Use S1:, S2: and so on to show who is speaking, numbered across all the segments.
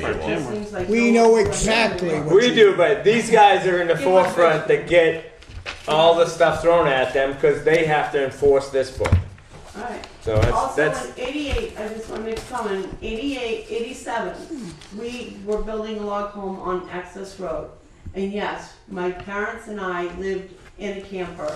S1: for timber.
S2: Seems like
S3: We
S2: no
S3: know
S2: one's done
S3: exactly
S2: anything.
S3: what
S4: We do, but these guys are in the
S2: Yeah.
S4: forefront that get all the stuff thrown at them because they have to enforce this book.
S2: Alright.
S4: So that's,
S2: Also
S4: that's,
S2: in eighty-eight, I just wanna make a comment, 88, 87, we were building a log home on Access Road. And yes, my parents and I lived in a camper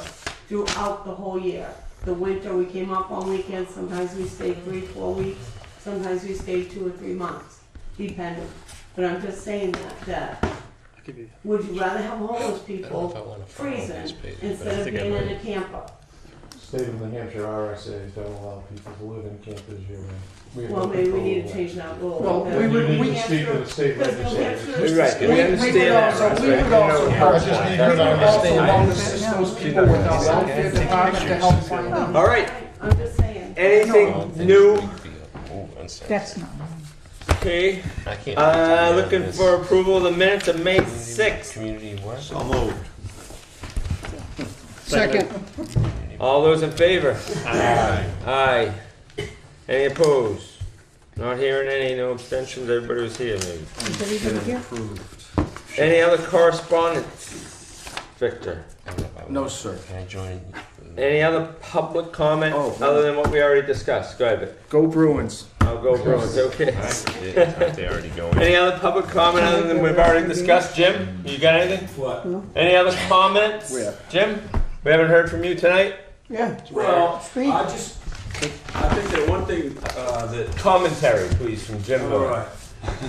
S2: throughout the whole year. The winter, we came up on weekends, sometimes we stayed three, four weeks, sometimes we stayed two or three months, depending. But I'm just saying that, that, would you rather have homeless
S5: if I
S2: people
S5: wanna follow these pages,
S2: freezing
S5: but I
S2: instead of
S5: think I
S2: being in
S5: might.
S2: a camper?
S6: State of New Hampshire RSAs don't allow people to live in campers year round.
S2: Well, maybe we need to change that rule.
S7: Well,
S2: That-
S7: we would-
S6: You
S7: we-
S6: need to speak to the state
S2: Because New
S6: legislature.
S2: Hampshire-
S4: you're right,
S7: We-
S4: we
S7: we would
S4: understand that.
S7: also-
S4: Russ,
S7: We
S4: right?
S7: would also
S4: Yeah.
S7: help,
S6: I just
S7: we
S6: need
S7: would
S6: to
S7: also
S6: understand.
S7: help assist those people with our welfare department to help find out.
S4: All right,
S2: I'm just saying.
S4: anything new?
S3: That's not.
S4: Okay, uh, looking for approval of the minutes of May sixth.
S5: Community work.
S1: So moved.
S3: Second.
S4: All those in favor?
S1: Aye.
S4: Aye. Any opposed? Not hearing any, no abstentions, everybody was here maybe.
S3: Is everybody here?
S1: Approved.
S4: Any other correspondence? Victor,
S7: No, sir.
S5: Can I join?
S4: any other public comment
S7: Oh.
S4: other than what we already discussed? Go ahead, Vic.
S7: Go Bruins.
S4: I'll go Bruins, okay.
S5: They already going.
S4: Any other public comment other than we've already discussed? Jim, you got anything?
S1: What?
S4: Any other comments?
S7: Yeah.
S4: Jim, we haven't heard from you tonight?
S3: Yeah.
S1: Well,
S3: Speak.
S1: I just, I think that one thing, uh, that,
S4: Commentary, please, from Jim.
S1: all right.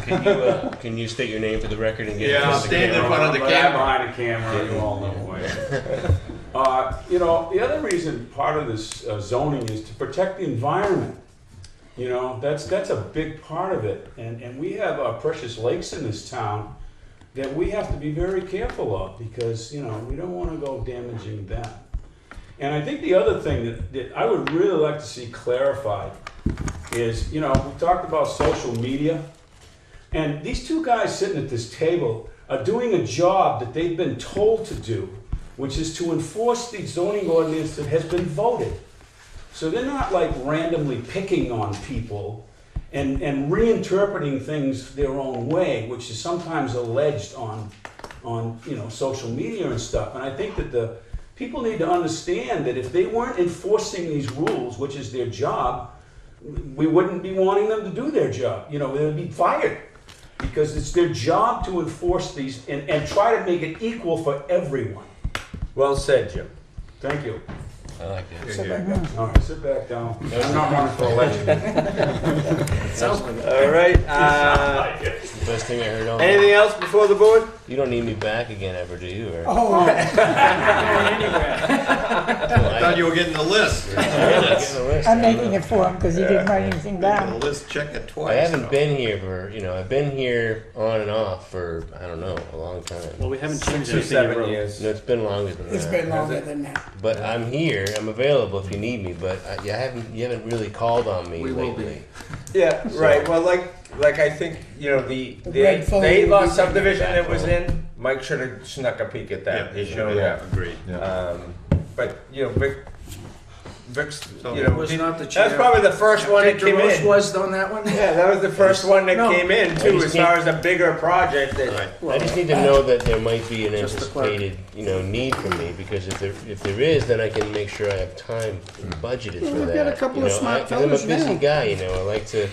S5: Can you, uh, can you state your name for the record and get? in front of the camera?
S1: Behind the camera, you all know who I am. Uh, you know, the other reason, part of this uh, zoning is to protect the environment. You know, that's, that's a big part of it, and, and we have our precious lakes in this town that we have to be very careful of, because, you know, we don't wanna go damaging them. And I think the other thing that, that I would really like to see clarified is, you know, we talked about social media. And these two guys sitting at this table are doing a job that they've been told to do, which is to enforce the zoning ordinance that has been voted. So they're not like randomly picking on people and, and reinterpreting things their own way, which is sometimes alleged on, on, you know, social media and stuff. And I think that the, people need to understand that if they weren't enforcing these rules, which is their job, we wouldn't be wanting them to do their job. You know, they would be fired because it's their job to enforce these and, and try to make it equal for everyone.
S4: Well said, Jim.
S1: Thank you.
S5: I like that.
S1: All right, sit back down. I'm not running for election.
S4: All right, uh,
S5: Best thing I heard all.
S4: anything else before the board?
S5: You don't need me back again ever, do you? Or?
S3: Oh,
S5: I
S8: Thought you were getting the list.
S3: I'm making it for him because he didn't write anything
S8: The
S3: down.
S8: list, check it twice.
S5: I haven't been here for, you know, I've been here on and off for, I don't know, a long time.
S9: Well, we haven't changed
S4: Two,
S9: anything.
S4: seven years.
S5: No, it's been longer than
S3: It's
S5: that.
S3: been longer than that.
S5: But I'm here. I'm available if you need me. But I, you haven't you haven't really called on me
S7: We will be.
S5: lately.
S4: Yeah, right, well, like, like I think, you know, the, the,
S3: The red
S4: the eight
S3: folder
S4: lot
S3: was-
S4: subdivision that was in, Mike should have snuck a peek at that, you know that.
S8: Agreed.
S4: Um, but, you know, Vic, Vic's,
S8: So
S4: you
S8: it
S4: know,
S7: was
S4: did-
S7: not the
S4: that's
S7: chair.
S4: probably the first one that came
S7: DeRoche
S4: in.
S7: was on that one?
S4: Yeah, that was the first one that
S7: No.
S4: came in
S5: I
S4: too,
S5: just
S4: as far
S5: can't-
S4: as a bigger project that,
S5: Right. I just need to know that there might be an
S7: Just the clerk.
S5: anticipated, you know, need for me because if there if there is, then I can make sure I have time
S7: Mm.
S5: budgeted for
S7: Well,
S5: that.
S7: we've got a couple
S5: you
S7: of
S5: know,
S7: smart
S5: I, 'cause I'm a
S7: fellas
S5: busy
S7: now.
S5: guy, you know. I like to,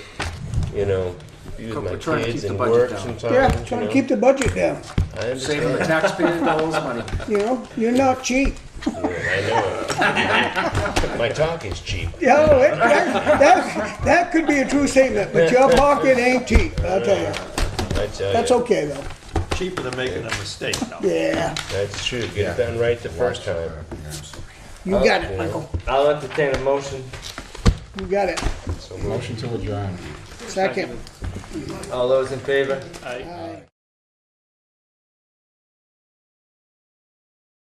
S5: you know, be with
S7: Couple-
S5: my
S7: trying to
S5: kids
S7: keep the
S5: and
S7: budget
S5: work
S7: down.
S5: sometimes.
S3: Yeah,
S5: you
S3: trying to
S5: know.
S3: keep the budget down.
S5: I understand.
S7: Saving the taxpayer dollars money.
S3: You know, you're not cheap.
S5: I know. it. my talk is cheap.
S3: Yeah, oh, it- that, that, that could be a true statement, but your pocket ain't cheap, I'll tell you.
S5: I tell
S3: That's
S5: you.
S3: okay though.
S8: Cheaper than making a mistake.
S3: Yeah,
S5: That's true. Get it done right the first time.
S3: you got it, Michael.
S4: I'll entertain a motion.
S3: You got it.
S5: So motion.
S3: Second.
S4: All those in favor?
S9: I-
S3: Aye.